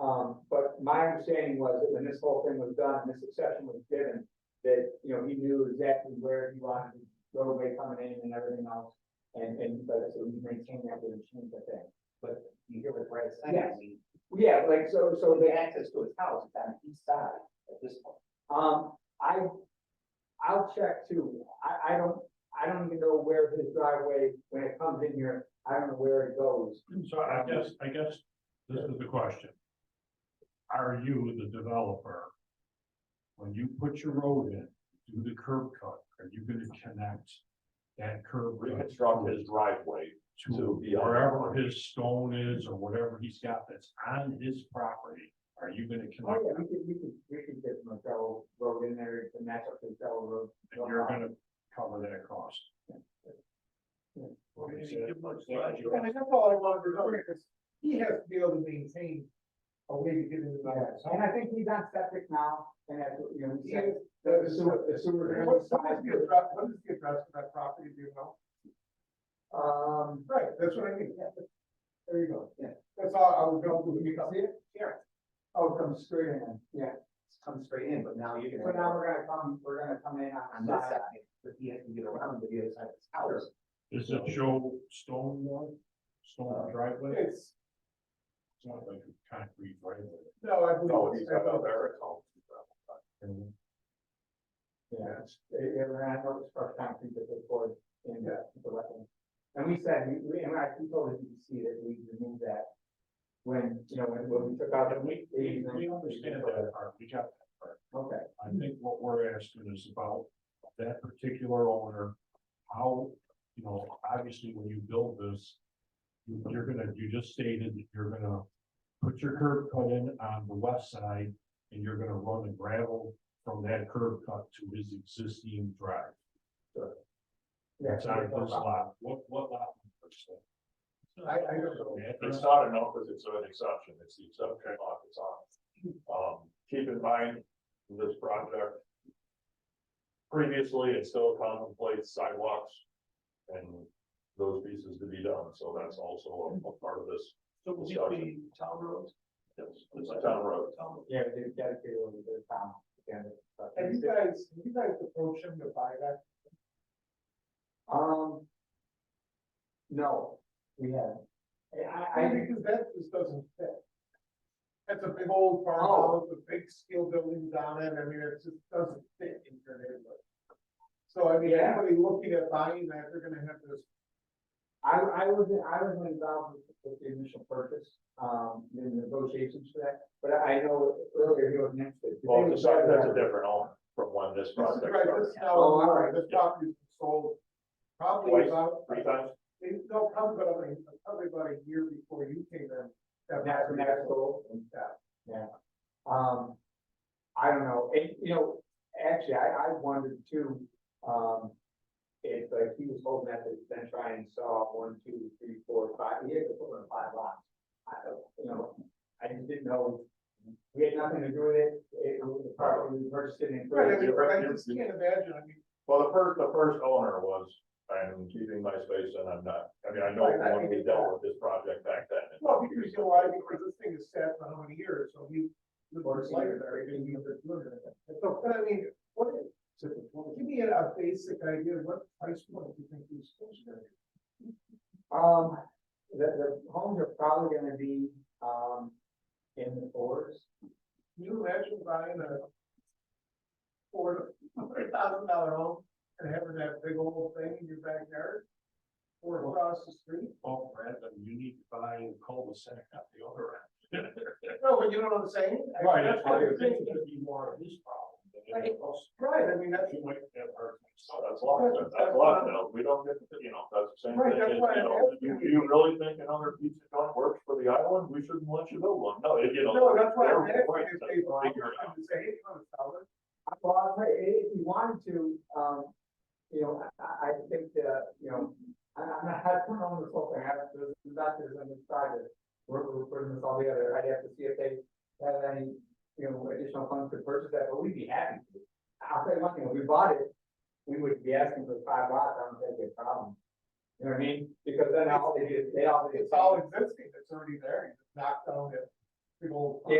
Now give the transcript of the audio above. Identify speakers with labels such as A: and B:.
A: Um, my understanding was that when this whole thing was done and this exception was given, that, you know, he knew exactly where he wanted the roadway coming in and everything else. And, and, but so he maintained that with a change of thing.
B: but you hear what Brad's
A: Yes.
B: saying, I mean,
A: Yeah, like, so, so
B: so
A: they
B: the access to his house is on the east side at this point.
A: Um, I, I'll check too. I, I don't, I don't even know where his driveway, when it comes in here, I don't know where it goes.
C: So I guess, I guess this is the question. Are you the developer? When you put your road in, do the curb cut, are you gonna connect that curb? cut
D: reconstruct his driveway.
C: To
D: to the other
C: wherever his stone is or whatever he's got that's on his property, are you gonna
A: Oh,
C: connect?
A: yeah,
C: that?
A: we could, we could, we could get Marcelo Road in there to match up to Marcelo Road.
C: And you're gonna cover that cost?
E: Well,
C: Is
E: you
C: that-
E: give much
C: is that what you-
E: And that's all I want to know, because he has to be able to maintain a way to get into that.
A: Yes, and I think he's on septic now, and that's, what, you know, he said,
E: Yes.
A: the the sewer, the sewer.
E: What, what is the address, what is the address of that property, do you know?
A: Um,
E: Right, that's what I mean. There you go.
A: Yeah.
E: That's all I was going to, you can see it?
A: oh, come straight in, yeah.
B: It's come straight in, but now you're gonna.
A: So now we're gonna come, we're gonna come in
B: On
A: on the
B: this
A: side.
B: side, but he has to get around to the other side of his house.
C: Does it show stone one, stone driveway?
E: It's,
C: It's not like a concrete driveway.
E: no, I
D: No,
E: believe.
D: he's
E: it's-
D: got out there, it's all.
A: Yeah, it's, it, it ran out of structure concrete that they poured in the, uh, the wetland. And we said, we, we, and I, we told the DEC that we removed that when, you know, when, when we took out.
C: And we, we, we understand that part, we got that part.
A: Okay,
C: I think what we're asking is about that particular owner, how, you know, obviously when you build this, you- you're gonna, you just stated that you're gonna put your curb cut in on the west side, and you're gonna run the gravel from that curb cut to his existing drive.
A: yeah.
C: That's on this lot, what, what lot? number is that?
E: I, I don't know.
C: Yeah,
D: It's
C: it's-
D: not a no, because it's an exception, it's the exception off its own. Um, keep in mind, this project. Previously, it still contemplates sidewalks and those pieces to be done, so that's also a a part of this.
E: So
D: will it be
E: town roads?
D: It's a town road.
A: Yeah, we did dedicate a little bit of time together. but-
E: Have you guys, have you guys approached him to buy that?
A: Um. No, we haven't. I, I,
E: I
A: I-
E: think that just doesn't fit. That's a big old
A: Oh.
E: farmhouse, with big steel buildings on it, I mean, it just doesn't fit in your neighborhood. So I mean,
A: Yeah.
E: anybody looking at buying that, they're gonna have this,
A: I, I was, I was involved with- with the initial purchase, um, in the negotiations for that, but I know earlier you had mentioned. it.
D: Well, it's a- that's a different owner from when this
E: this
D: project
E: is right, this
D: started.
E: is now,
A: Oh, all right.
E: this property sold probably
D: Twice,
E: about,
D: Three times,
E: they- no, probably about, a- probably about a year before you came in. that
A: That's
E: property was sold.
A: natural.
E: Yeah.
A: Um, I don't know, and, you know, actually, I, I wondered too, um, if, like, he was holding that, to then try and saw one, two, three, four, five, he had to put in five lots. I don't, you know, I just didn't know, we had nothing to do with it, it was the property we purchased it in.
E: Right, I mean,
D: You're-
E: I
D: you're-
E: just can't imagine, I mean,
D: well, the first, the first owner was, I'm keeping my space and I'm not, I mean, I know
E: Right, I
D: when we
E: mean-
D: dealt with this project back then. it-
E: well, because you know why, because this thing is sat for how many years, so he. The
A: Or
E: board's like,
A: it's-
E: they're gonna be a bit good at it. So, but I mean, what is, give me a a basic idea, of what price point do you think these things are? gonna be?
A: Um, the, the homes are probably gonna be, um, in the fours.
E: Can you imagine buying a four, four thousand dollar home and having that big old thing in your backyard? Or across the street?
C: Oh, Brandon, you need to buy a cul-de-sac at the other end.
E: No, but you know what I'm saying? I-
C: Right, that's why
E: what I'm
C: you're
E: saying.
C: thinking it'd be more of his problem than anything else.
E: Right, I mean, that's,
C: You might have heard me
D: So
C: say
D: that's locked, that's locked, now, we don't get, you know, that's the same thing,
E: Right, that's
D: you
E: why I'm
D: know,
E: asking
D: you,
E: you.
D: you really think another pizza joint works for the island, we shouldn't let you build one, no, it- you know.
E: no, that's why I'm
D: they're
E: asking if
D: right,
E: they bought,
D: figure it
E: I
D: out.
E: would say, hey, come sell it.
A: Well, I'll tell you, if you wanted to, um, you know, I- I, I think that, you know, I, I'm not, I don't know this whole thing, I have, this is not this, I'm excited. We're, we're putting this all together, I'd have to see if they have any, you know, additional funds to purchase that, but we'd be happy to. I'll tell you one thing, if we bought it, we would be asking for five lots, I don't think it'd be a problem. You know what I mean? Because
E: Oh,
A: then all they do, is they all. do is-
E: It's all existing, it's already there, you just knock down that big old.
A: Yeah,